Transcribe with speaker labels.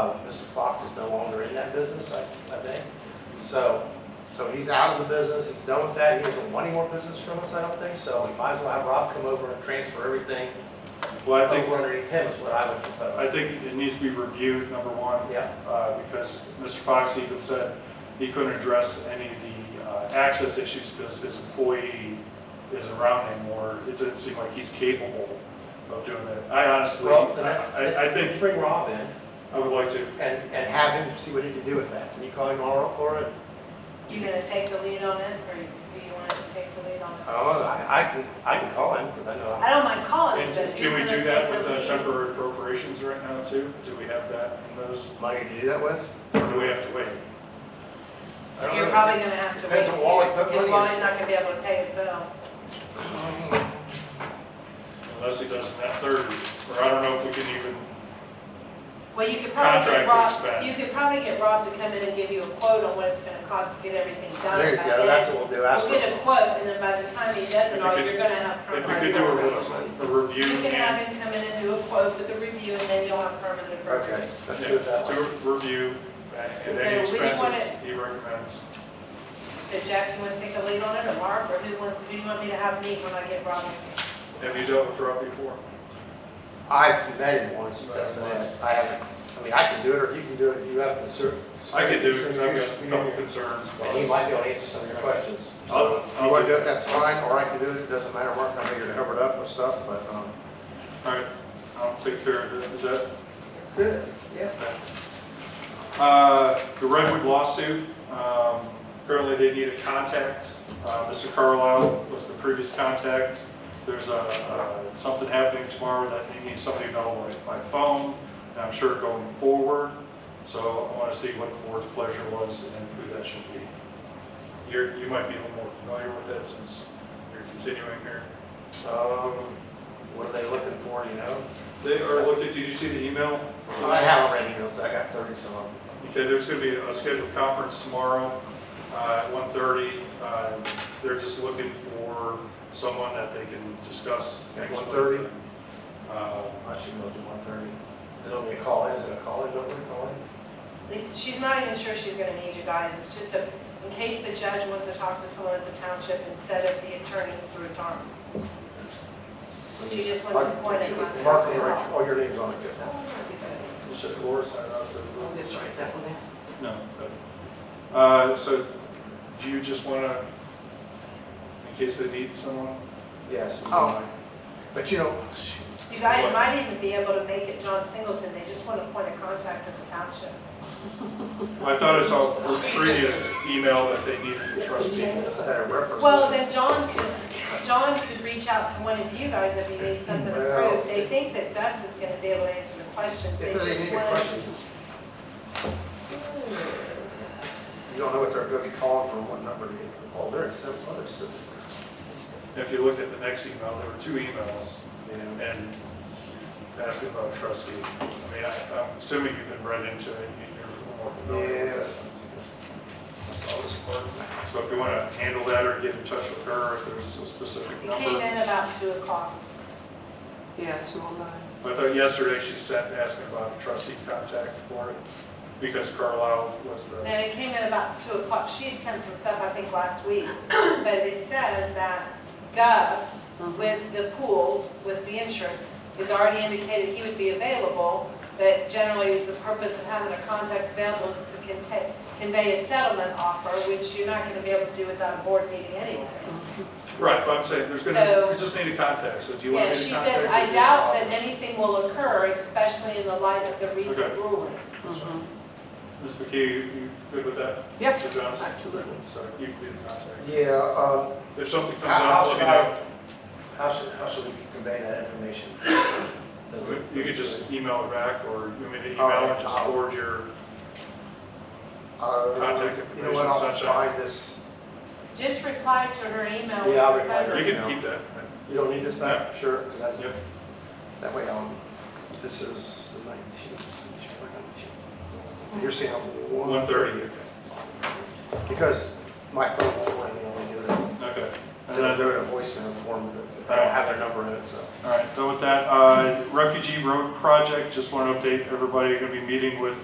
Speaker 1: Uh, Mr. Fox is no longer in that business, I, I think. So, so he's out of the business, he's done with that, he doesn't want any more business from us, I don't think, so we might as well have Rob come over and transfer everything
Speaker 2: Well, I
Speaker 1: over
Speaker 2: think,
Speaker 1: underneath him is what I would propose.
Speaker 2: I think it needs to be reviewed, number one,
Speaker 1: Yeah,
Speaker 2: uh, because Mr. Fox even said he couldn't address any of the uh, access issues because his employee isn't around anymore. It didn't seem like he's capable of doing that. I honestly,
Speaker 1: well, then that's,
Speaker 2: I, I think
Speaker 1: bring Rob in
Speaker 2: I would like to,
Speaker 1: and, and have him see what he can do with that. Can you call him tomorrow, Laura?
Speaker 3: You gonna take the lead on it, or do you want us to take the lead on it?
Speaker 1: Oh, I, I can, I can call him, because I know I'm
Speaker 3: I don't mind calling it,
Speaker 2: and
Speaker 3: Oh, but if
Speaker 2: can
Speaker 3: you're
Speaker 2: we
Speaker 3: gonna
Speaker 2: do
Speaker 3: take
Speaker 2: that with uh,
Speaker 3: the
Speaker 2: the
Speaker 3: lead.
Speaker 2: temporary appropriations right now too? Do we have that in those,
Speaker 1: money to do that with.
Speaker 2: or do we have to wait?
Speaker 1: I don't
Speaker 3: You're
Speaker 1: know.
Speaker 3: probably gonna have to wait.
Speaker 1: Depends on Wally, put money
Speaker 3: Because
Speaker 1: in.
Speaker 3: Wally's not gonna be able to pay his bill.
Speaker 2: Unless he does that third, or I don't know if we can even,
Speaker 3: Well, you could probably
Speaker 2: Contract
Speaker 3: get Rob,
Speaker 2: expense.
Speaker 3: you could probably get Rob to come in and give you a quote on what it's gonna cost to get everything done.
Speaker 1: There you
Speaker 3: by
Speaker 1: go,
Speaker 3: then.
Speaker 1: that's what we'll do, ask
Speaker 3: We'll get a
Speaker 1: him.
Speaker 3: quote, and then by the time he does
Speaker 2: If we
Speaker 3: it all,
Speaker 2: could-
Speaker 3: you're gonna have.
Speaker 2: if we
Speaker 3: permanent
Speaker 2: could do a re-
Speaker 3: appropriations.
Speaker 2: a review
Speaker 3: You can
Speaker 2: and
Speaker 3: have him come in and do a quote with a review, and then you'll have permanent
Speaker 1: Okay,
Speaker 3: appropriations.
Speaker 1: let's
Speaker 2: Yeah,
Speaker 1: do it that way.
Speaker 2: do a review and any
Speaker 3: So which one
Speaker 2: expenses he recommends.
Speaker 3: So Jack, you wanna take the lead on it, or Mark, or who wants, who do you want me to have meet when I get Rob?
Speaker 2: Have you dealt with Rob before?
Speaker 1: I've met him once, but that's about it. I haven't, I mean, I can do it, or you can do it, if you have concern.
Speaker 2: I could do it because I've got some couple concerns.
Speaker 1: And he might be able to answer some of your questions.
Speaker 2: I'll-
Speaker 1: So, if
Speaker 2: I'll
Speaker 1: you want to
Speaker 2: do
Speaker 1: do it, that's fine, or I can do it, it doesn't matter, Mark, I know you're covered up with stuff, but, um.
Speaker 2: All right, I'll take care of it. Is that,
Speaker 1: It's good, yeah.
Speaker 2: uh, the Redwood lawsuit, um, apparently they need a contact. Uh, Mr. Carlisle was the previous contact. There's a, uh, something happening tomorrow that they need somebody available by by phone, and I'm sure going forward. So I want to see what the board's pleasure was and who that should be. You're, you might be a little more familiar with that since you're continuing here.
Speaker 1: Um, what are they looking for, you know?
Speaker 2: They are looking, did you see the email?
Speaker 1: I have already, emails, I got thirty some of them.
Speaker 2: Okay, there's going to be a scheduled conference tomorrow uh, at 1:30. Uh, They're just looking for someone that they can discuss.
Speaker 1: At
Speaker 2: next week.
Speaker 1: 1:30?
Speaker 2: Uh,
Speaker 1: I should go to one thirty. It'll be a call, in. is it a call, in? don't we call in?
Speaker 3: It's- She's not even sure she's gonna need you guys, it's just a, in case the judge wants to talk to someone at the township instead of the attorneys through Tom. She just wants to point it out.
Speaker 1: Mark, oh, your name's on it, good.
Speaker 2: you said Laura signed up to the room?
Speaker 4: That's right, that one.
Speaker 2: No. but- uh, So do you just want to, in case they need someone?
Speaker 1: Yes.
Speaker 4: Oh.
Speaker 1: But you know,
Speaker 3: You guys might even be able to make it John Singleton, they just want a point of contact at the township.
Speaker 2: Well, I thought I saw her previous email that they needed a trustee.
Speaker 1: better represent.
Speaker 3: Well, then John could, John could reach out to one of you guys if he needs something
Speaker 1: Well-
Speaker 3: approved. They think that Gus is gonna be able to answer the questions, they
Speaker 1: It's a
Speaker 3: just
Speaker 1: need a
Speaker 3: want to
Speaker 1: question. You don't know what they're gonna be calling from, what number to get. Oh, they're some other citizens.
Speaker 2: If you look at the next email, there were two emails.
Speaker 1: you know.
Speaker 2: and ask about trustee. I mean, I- I'm assuming you've been read into it, and you're more familiar with
Speaker 1: Yes.
Speaker 2: this.
Speaker 1: I saw this part.
Speaker 2: So if you want to handle that or get in touch with her, if there's a specific
Speaker 3: He came
Speaker 2: number.
Speaker 3: in about two o'clock.
Speaker 4: Yeah, two oh nine.
Speaker 2: I thought yesterday she sent asking about a trustee contact for it, because Carlisle was the,
Speaker 3: No, it came in about two o'clock. She had sent some stuff, I think, last week. But it says that Gus, with the pool, with the insurance, has already indicated he would be available. But generally, the purpose of having a contact available is to conte- convey a settlement offer, which you're not going to be able to do without a board meeting anyway.
Speaker 2: right, but I'm saying, there's going to,
Speaker 3: So-
Speaker 2: we just need a contact, so do you want
Speaker 3: Yeah,
Speaker 2: me to
Speaker 3: she
Speaker 2: contact?
Speaker 3: says,
Speaker 2: her?"
Speaker 3: I doubt that anything will occur, especially in the light of the recent
Speaker 2: Okay.
Speaker 3: ruling.
Speaker 2: Ms. McKee, you you good with that?
Speaker 4: Yep,
Speaker 2: Mr. Johnson?
Speaker 4: absolutely.
Speaker 2: So you can be the contact.
Speaker 1: Yeah, um,
Speaker 2: If something comes
Speaker 1: how
Speaker 2: up,
Speaker 1: how
Speaker 2: let
Speaker 1: should
Speaker 2: me know.
Speaker 1: I, how should, how should we convey that information? Does it-
Speaker 2: You could just email it back, or you mean to
Speaker 1: All
Speaker 2: email
Speaker 1: right,
Speaker 2: and just
Speaker 1: I'll-
Speaker 2: forward your,
Speaker 1: Uh,
Speaker 2: Contact
Speaker 1: You know what,
Speaker 2: information,
Speaker 1: I'll
Speaker 2: sunshine.
Speaker 1: find this,
Speaker 3: Just reply to her email. with
Speaker 1: Yeah, I'll
Speaker 3: your
Speaker 1: reply to
Speaker 3: photo.
Speaker 1: her.
Speaker 2: you can keep that.
Speaker 1: you don't need this back? Sure. 'cause that's-
Speaker 2: Yep.
Speaker 1: That way, um, this is the nineteenth, January nineteenth. You're saying one thirty? Because my phone won't let me only do it,
Speaker 2: Okay. And
Speaker 1: it'll
Speaker 2: then,
Speaker 1: do it in voicemail form, but if I don't have their number in it, so.
Speaker 2: all right, done with that. Uh, Refugee Road Project, just want to update everybody, going to be meeting with